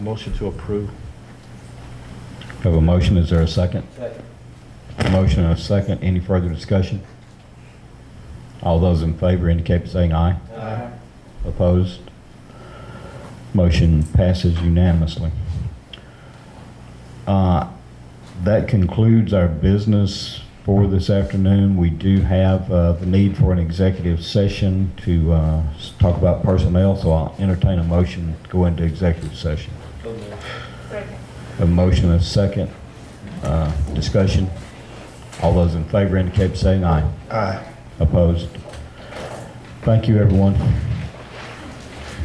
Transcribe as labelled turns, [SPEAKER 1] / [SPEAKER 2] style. [SPEAKER 1] Motion to approve.
[SPEAKER 2] We have a motion, is there a second? Second. Motion and a second, any further discussion? All those in favor indicate by saying aye. Aye. Opposed? Motion passes unanimously. Uh, That concludes our business for this afternoon. We do have uh, the need for an executive session to uh, s- talk about personnel, so I'll entertain a motion to go into executive session.
[SPEAKER 3] Second.
[SPEAKER 2] A motion and a second. Uh, Discussion. All those in favor indicate by saying aye.
[SPEAKER 1] Aye.
[SPEAKER 2] Opposed? Thank you, everyone.